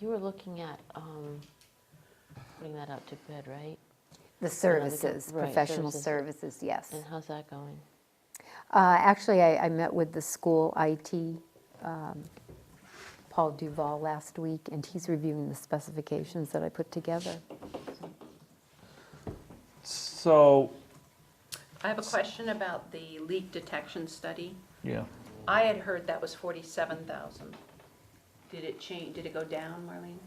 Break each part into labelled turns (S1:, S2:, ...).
S1: you were looking at um, putting that out to bid, right?
S2: The services,
S1: right,
S2: professional
S1: services.
S2: services, yes.
S1: And how's that going?
S2: Uh, Actually, I, I met with the school IT, um, Paul Duval, last week, and he's reviewing the specifications that I put together.
S3: So,
S4: I have a question about the leak detection study.
S3: yeah,
S4: I had heard that was 47,000. Did it change, did it go down, Marlene?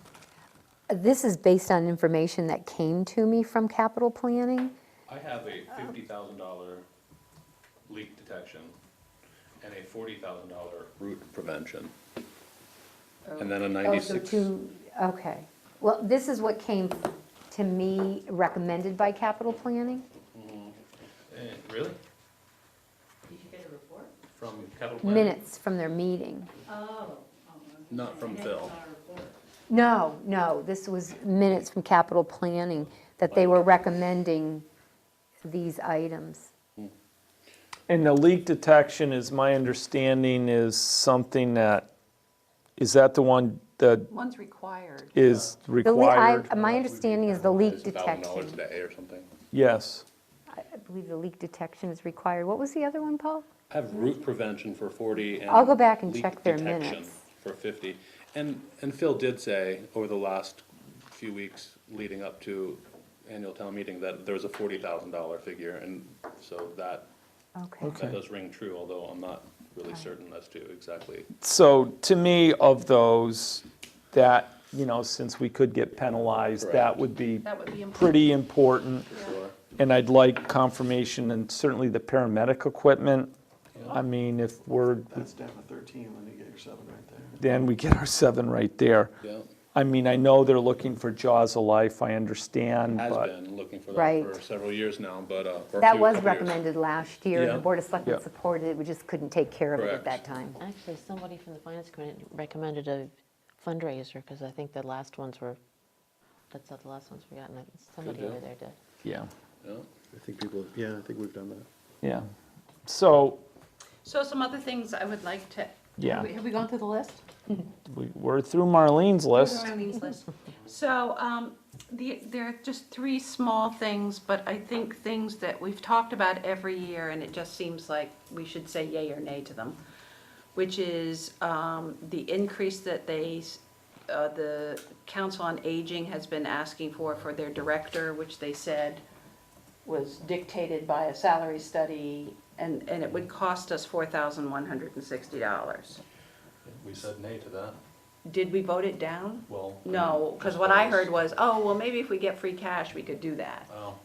S2: This is based on information that came to me from capital planning.
S5: I have a
S2: Oh.
S5: fifty thousand dollar leak detection and a forty thousand dollar root prevention. And then a
S2: Oh, so
S5: ninety-six,
S2: two- Okay, well, this is what came to me recommended by capital planning?
S5: Eh, really?
S6: Did you get a report?
S5: From Capital Plan?
S2: Minutes from their meeting.
S6: Oh. oh, okay.
S5: Not from
S6: I never
S5: Phil.
S6: saw a report.
S2: No, no, this was minutes from capital planning, that they were recommending these items.
S3: and the leak detection is, my understanding is something that, is that the one that
S4: One's required.
S3: is
S2: The le- I-
S3: required?
S2: My understanding is the leak
S5: It's $1,000
S2: detection.
S5: today or something.
S3: Yes,
S2: I believe the leak detection is required. What was the other one, Paul?
S5: I have root prevention for forty and.
S2: I'll go back and
S5: leak
S2: check their
S5: detection
S2: minutes.
S5: For fifty. And, and Phil did say over the last few weeks leading up to annual town meeting that there was a forty thousand dollar figure and so that
S2: Okay.
S5: That does ring true, although I'm not really certain as to exactly.
S3: so to me, of those, that, you know, since we could get penalized, that
S5: Correct.
S3: would be
S4: That would be important.
S3: pretty important.
S5: Sure.
S3: And I'd like confirmation and certainly the paramedic equipment. I mean, if we're,
S7: That's down to thirteen, then you get your seven right there.
S3: then we get our seven right there.
S5: Yeah,
S3: I mean, I know they're looking for Jaws of Life, I understand,
S5: has
S3: but.
S5: been looking for
S2: Right.
S5: that for several years now, but, uh. or a
S2: That
S5: few-
S2: was
S5: couple years.
S2: recommended last year, and the
S5: Yeah.
S2: Board of Selectmen
S3: Yeah.
S2: supported it, we just couldn't take care of it at
S5: Correct.
S2: that time.
S1: Actually, somebody from the finance committee recommended a fundraiser because I think the last ones were, that's not the last ones we got, and somebody
S5: deal.
S1: over there did.
S3: Yeah.
S5: Yeah.
S7: I think people, yeah, I think we've done that.
S3: Yeah, so,
S4: So some other things I would like to.
S3: Yeah.
S4: Have we gone through the list?
S3: we- we're through Marlene's list.
S4: Marlene's list. So, um, the, there are just three small things, but I think things that we've talked about every year, and it just seems like we should say yay or nay to them, which is, um, the increase that they, s- uh, the Council on Aging has been asking for, for their director, which they said was dictated by a salary study, and, and it would cost us four thousand one hundred and sixty dollars.
S5: We said nay to that,
S4: Did we vote it down?
S5: well. I mean,
S4: No, because what I heard was, oh, well, maybe if we get free cash, we could do that.
S5: Well,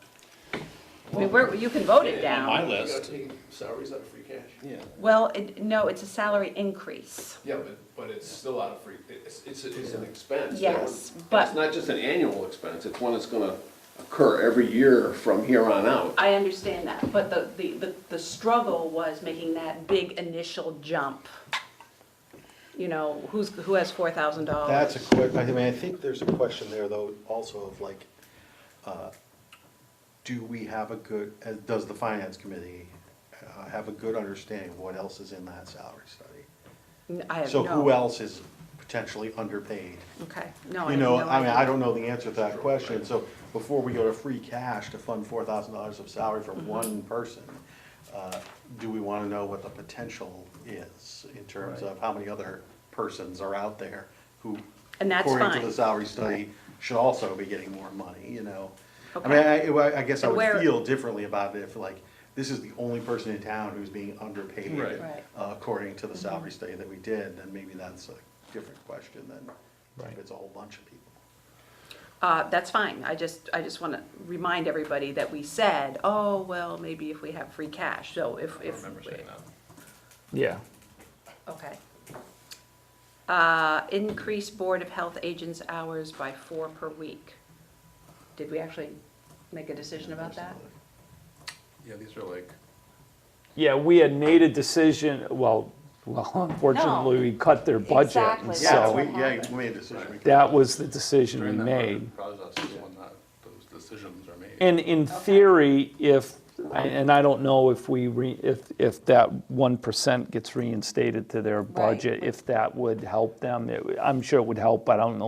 S4: I mean, we're, you can vote it
S5: on my
S4: down.
S5: list,
S7: salaries out of free cash.
S5: yeah.
S4: Well, it, no, it's a salary increase.
S8: Yeah, but, but it's still out of free, it's, it's, it's an expense.
S4: Yes,
S8: And
S4: but-
S8: It's not just an annual expense, it's one that's gonna occur every year from here on out.
S4: I understand that, but the, the, the, the struggle was making that big initial jump. You know, who's, who has four thousand dollars?
S7: That's a quick, I mean, I think there's a question there though, also of like, uh, do we have a good, uh, does the finance committee uh, have a good understanding of what else is in that salary study?
S4: I have
S7: So who
S4: no-
S7: else is potentially underpaid?
S4: Okay, no, I
S7: You
S4: have
S7: know,
S4: no
S7: I mean,
S4: idea.
S7: I don't know the answer to that question, so before we go to free cash to fund four thousand dollars of salary
S4: Mm-hmm.
S7: for one person, uh, do we wanna know what the potential is in terms of how many other persons are out there who,
S4: And that's
S7: according
S4: fine.
S7: to the salary study, should also be getting more money, you know? I mean, I,
S4: Okay.
S7: I- I guess I
S4: And where-
S7: would feel differently about it if like, this is the only person in town who's being underpaid
S5: Right.
S4: Right.
S7: uh, according to the salary study that we did, then maybe that's a different question than
S3: Right.
S7: if it's a whole bunch of people.
S4: Uh, that's fine, I just, I just want to remind everybody that we said, oh, well, maybe if we have free cash, so if,
S5: I
S4: if.
S5: remember saying that.
S3: Yeah.
S4: Okay. Uh, Increase Board of Health agents' hours by four per week. Did we actually make a decision about that?
S5: Yeah, these are like,
S3: Yeah, we had made a decision, well, well, unfortunately, we cut their budget, and
S1: Exactly.
S7: Yeah, we,
S3: so
S7: yeah, we made a decision.
S3: that was the decision we
S5: during that
S3: made.
S5: budget process is when that, those decisions are made.
S3: And in theory, if, and I don't know if we, re- if, if that 1% gets reinstated to their budget, if that would help them, It- I'm sure it would help, but I don't know